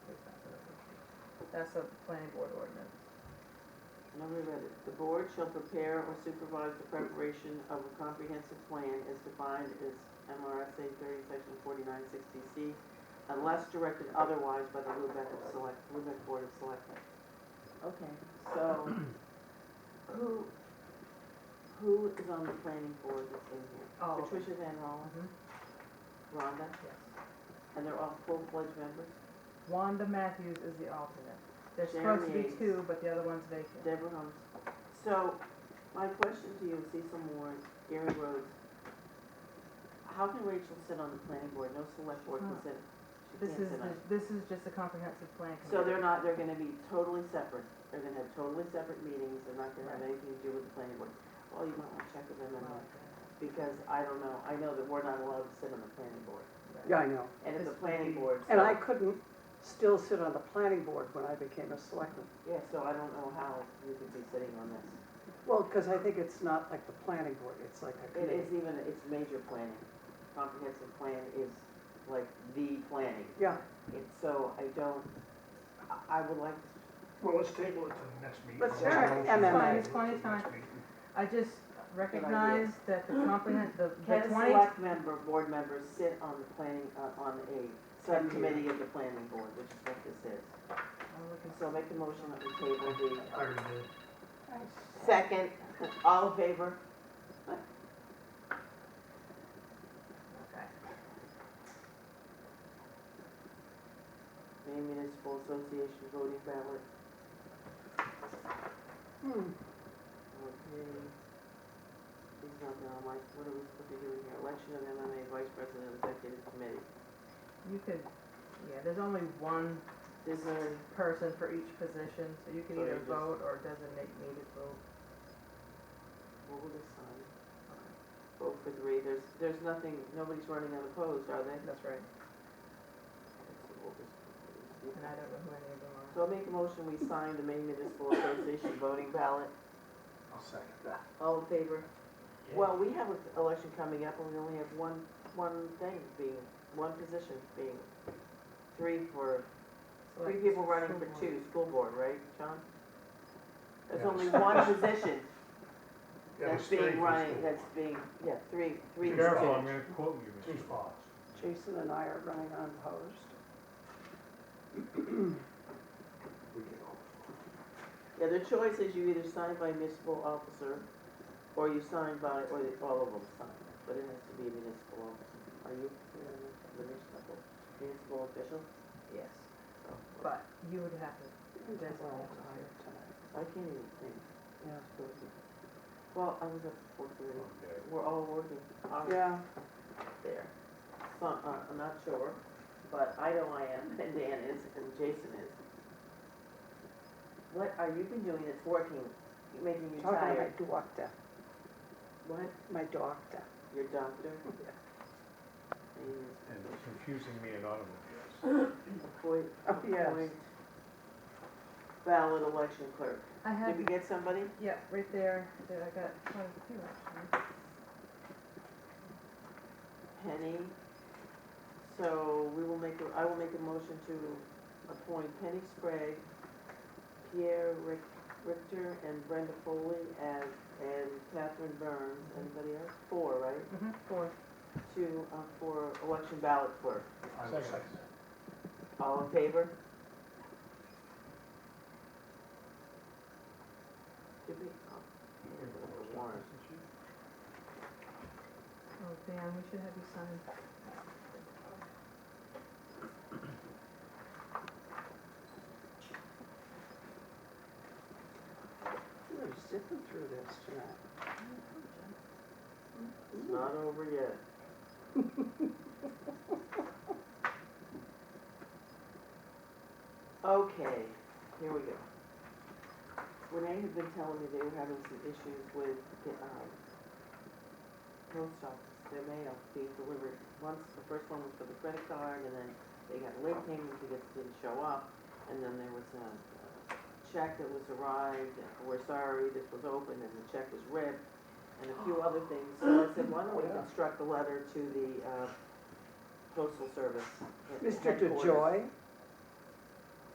That's a planning board ordinance. No, we read it. The board shall prepare or supervise the preparation of a comprehensive plan as defined as MRSA thirty, section forty-nine sixty C, unless directed otherwise by the Lubec of Select, Lubec Board of Selectmen. Okay, so who, who is on the planning board that's in here? All of them. Patricia Van Rollin, Mhm, Rhonda, Yes. and they're all full-fledged members? Wanda Matthews is the alternate. There's supposed to be Jeremy. two, but the other one's vacant. Deborah Holmes. So, my question to you, Cecil Moore, Gary Rhodes, how can Rachel sit on the planning board? No select board can Huh. sit. She This is, can't sit on the- it. this is just a comprehensive plan So they're committee. not, they're gonna be totally separate. They're gonna have totally separate meetings. They're not gonna have Right. anything to do with the planning board. Well, you might wanna check with Oh, them on that, because I don't know, I know that we're not allowed to sit on the planning board. Yeah, I know. And it's This would a planning be- board. And so- I couldn't still sit on the planning board when I became a selectman. Yeah, so I don't know how you could be sitting on this. Well, because I think it's not like the planning board, it's like a It is committee. even, it's major planning. Comprehensive plan is like the planning. Yeah, It's so, I don't, I, I would like, Well, let's table it to the next meeting. Let's Let's try motion MMA. table Fine, it it's to fine, the it's fine. next meeting. I just recognize that the comprehend, the the can twenty, select member, board members sit on the planning, uh, on a subcommittee of the planning board, which is what this is. I'm looking- So make a motion that we table the I already did. second, all in favor? okay. Maine Municipal Association voting ballot. Hmm. Okay. He's not gonna like, what are we supposed to be doing here? Election of MMA Vice President of Executive Committee. You could, yeah, there's only one This is. person for each position, so you can So you either just- vote or designate me to vote. What will this sign? Vote for three, there's, there's nothing, nobody's running unopposed, are they? That's right. So we'll just- And I don't know who any of them are. So I make a motion, we sign the Maine Municipal Association voting ballot, I'll second that. all in favor? Yeah. Well, we have an election coming up, and we only have one, one thing being, one position being, three for, three Select people running for someone. two, school board, right, John? There's Yeah. only one position Yeah, that's it's three being for running, school. that's being, yeah, three, three. Be for careful, each. I'm gonna quote you, Mr. Fox. Jason and I are running unopposed. We can all- Yeah, the choice is you either sign by municipal officer, or you sign by, or the- all of them sign, but it has to be a municipal officer. Are you a municipal, municipal official? Yes, Oh, but you would have to, I'm tired That's all. tonight. I can't even think. Yeah. Well, I was up for three. Okay. We're all working hard Yeah, there. So, uh, I'm not sure, but I know I am, and Dan is, and Jason is. What are you been doing that's working, making you talking tired? about my doctor, What? my doctor. Your doctor? Yeah. And And it's confusing me in automobiles. Appoint, Oh, yes. appoint ballot election clerk. I have, Did we get somebody? yeah, right there, there, I got quite a few actually. Penny. So we will make, a- I will make a motion to appoint Penny Sprague, Pierre Ric- Richter, and Brenda Foley as, and Catherine Burns, anybody else? Four, right? Mhm, Four, To, uh, for election ballot clerk. I will second that. All in favor? Did we, oh, warrant. oh, Dan, we should have you sign. We're zipping through this tonight. It's not over yet. Okay, here we go. Renee had been telling me they were having some issues with the, um, post office, their mail being delivered. Once, the first one was for the credit card, and then they got late payments because it didn't show up, and then there was a uh, check that was arrived, and we're sorry, this was opened, and the check was ripped, and a few other things, so I said, why don't we Yeah. construct a letter to the uh, postal service. Mr. headquarters. DeJoy,